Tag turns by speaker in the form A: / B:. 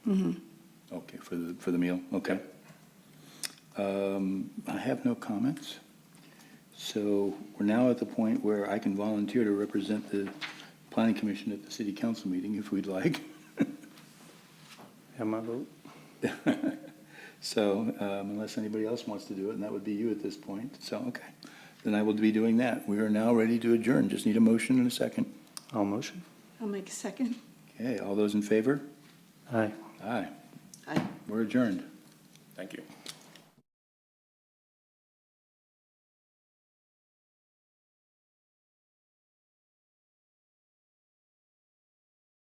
A: Mm-hmm. Okay, for the, for the meal, okay. Um, I have no comments. So we're now at the point where I can volunteer to represent the planning commission at the city council meeting if we'd like.
B: Have my vote.
A: So um, unless anybody else wants to do it, and that would be you at this point, so, okay. Then I will be doing that. We are now ready to adjourn. Just need a motion and a second.
B: All motion?
C: I'll make a second.
A: Okay, all those in favor?
B: Aye.
A: Aye.
C: Aye.
A: We're adjourned.
D: Thank you.